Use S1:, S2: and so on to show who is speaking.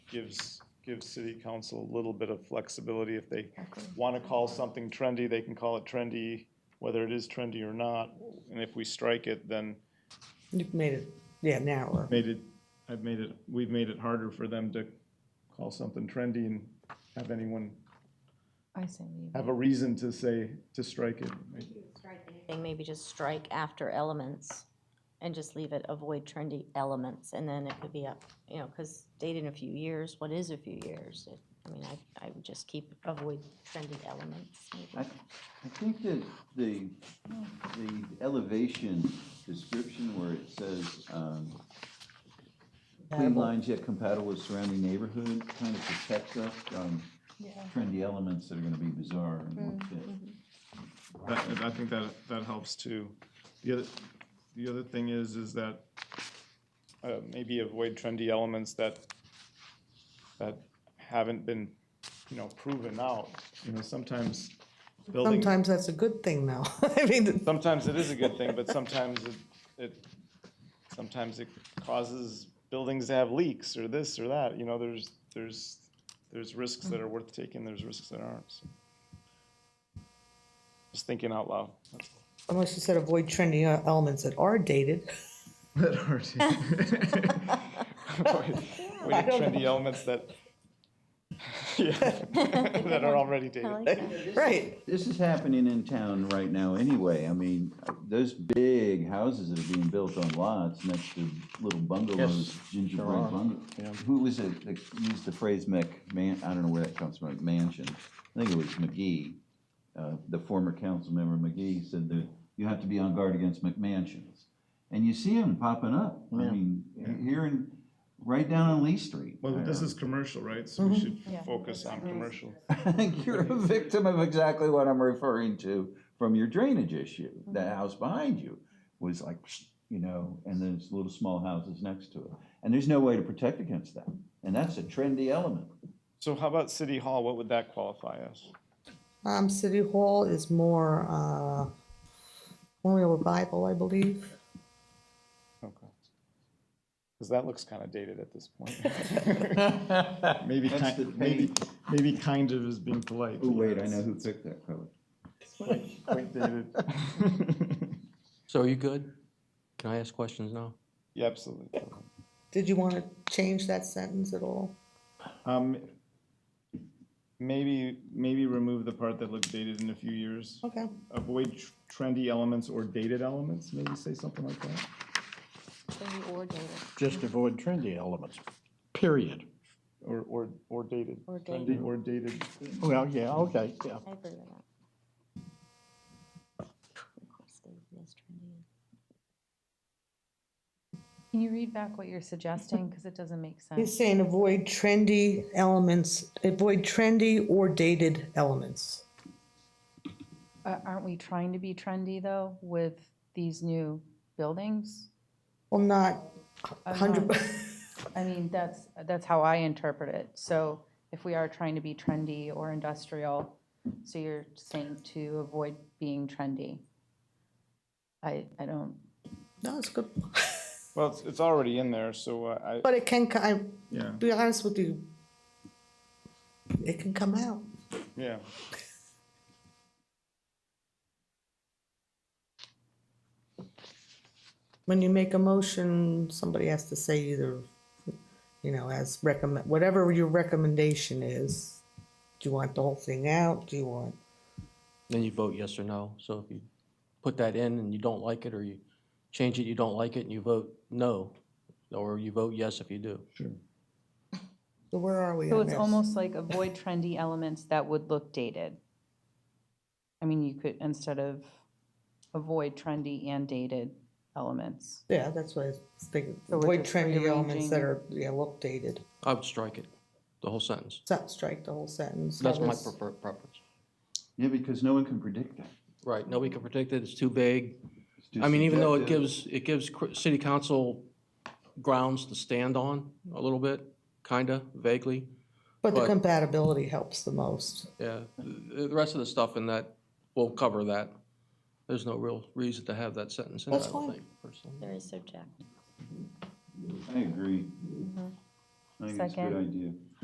S1: gives, gives city council a little bit of flexibility. If they
S2: Okay.
S1: want to call something trendy, they can call it trendy, whether it is trendy or not. And if we strike it, then
S3: You've made it, yeah, narrower.
S1: made it, I've made it, we've made it harder for them to call something trendy and have anyone
S2: I say leave.
S1: have a reason to say, to strike it.
S4: Thing maybe just strike after elements and just leave it, avoid trendy elements, and then it could be up, you know, because dated in a few years, what is a few years? It- I mean, I, I would just keep, avoid trendy elements,
S5: I,
S4: maybe.
S5: I think that the, the elevation description where it says, um, clean
S3: Compatible.
S5: lines yet compatible with surrounding neighborhood, kind of protects us from trendy elements that are gonna be bizarre and won't
S4: Mm-hmm.
S5: fit.
S1: That, and I think that, that helps too. The other, the other thing is, is that, uh, maybe avoid trendy elements that, that haven't been, you know, proven out. You know, sometimes building,
S3: Sometimes that's a good thing though. I mean,
S1: sometimes it is a good thing, but sometimes it, it, sometimes it causes buildings to have leaks or this or that, you know, there's, there's, there's risks that are worth taking, there's risks that aren't. so. Just thinking out loud. that's all.
S3: unless you said avoid trendy uh, elements that are dated.
S1: That hurt. We
S3: I
S1: have
S3: don't
S1: trendy elements that, yeah, that are already
S4: I
S1: dated.
S4: like that.
S3: Right.
S5: This is happening in town right now anyway. I mean, those big houses that are being built on lots next to little bungalows, gingerbread bungalows. Who was it that used the phrase Mc, man, I don't know where that comes from, mansion? I think it was McGee. Uh, the former council member McGee said that you have to be on guard against McMansions. And you see them popping up. I mean, here in, right down on Lee Street.
S1: Well, this is commercial, right? So we should focus on commercial.
S5: I think you're a victim of exactly what I'm referring to from your drainage issue. The house behind you was like, you know, and there's little small houses next to it. And there's no way to protect against that. And that's a trendy element.
S1: So how about city hall? What would that qualify as?
S3: Um, City Hall is more, uh, more revival, I believe.
S1: Okay. Because that looks kind of dated at this point. Maybe,
S5: That's
S1: kind-
S5: the
S1: maybe,
S5: paint.
S1: maybe kind of is being polite.
S5: Oh, wait, I
S1: Yes.
S5: know who picked that color.
S1: Quite dated.
S6: So are you good? Can I ask questions now?
S1: Yeah, absolutely.
S3: Did you want to change that sentence at all?
S1: Um, maybe, maybe remove the part that looked dated in a few years.
S3: Okay.
S1: Avoid tr- trendy elements or dated elements, maybe say something like that.
S4: Trendy or dated,
S7: Just avoid trendy elements, period.
S1: Or, or, or dated.
S4: Or
S1: Trendy
S4: dated.
S1: Or dated.
S7: Well, yeah, okay, yeah.
S4: I agree with that. Requested, yes, trendy.
S2: Can you read back what you're suggesting? Because it doesn't make
S3: He's
S2: sense.
S3: saying avoid trendy elements, avoid trendy or dated elements.
S2: Uh, Aren't we trying to be trendy, though, with these new buildings?
S3: Well, not a
S2: I'm
S3: hundred,
S2: not- I mean, that's, that's how I interpret it. So if we are trying to be trendy or industrial, so you're saying to avoid being trendy. I, I don't,
S3: no, it's good.
S1: Well, it's, it's already in there, so uh, I,
S3: But it can, ki- I,
S1: yeah,
S3: be honest with you, it can come out.
S1: yeah.
S3: When you make a motion, somebody has to say either, you know, as recommend, whatever your recommendation is. Do you want the whole thing out? Do you want,
S6: Then you vote yes or no. So if you put that in and you don't like it, or you change it, you don't like it, and you vote no, or you vote yes if you do.
S3: so where are we
S2: so
S3: on
S2: it's
S3: this?
S2: almost like avoid trendy elements that would look dated. I mean, you could, instead of avoid trendy and dated elements.
S3: Yeah, that's what I was thinking.
S2: So we're
S3: Avoid
S2: just
S3: trendy elements that
S2: rearranging-
S3: are, yeah, updated.
S6: I would strike it, the whole sentence.
S3: So strike the whole sentence.
S6: That's my
S3: Others-
S6: prefer- preference.
S5: Yeah, because no one can predict that.
S6: Right, nobody can predict it, it's too vague.
S5: It's too
S6: I mean, even though it
S5: subjective.
S6: gives, it gives cr- city council grounds to stand on a little bit, kinda, vaguely.
S3: But the
S6: but-
S3: compatibility helps the most.
S6: Yeah, the, the rest of the stuff in that, will cover that. There's no real reason to have that sentence in there, I
S3: That's
S6: don't
S3: fine.
S6: think, personally.
S5: Mm-hmm.
S4: Very subjective.
S5: I agree. I think it's a
S2: Second.
S5: good idea.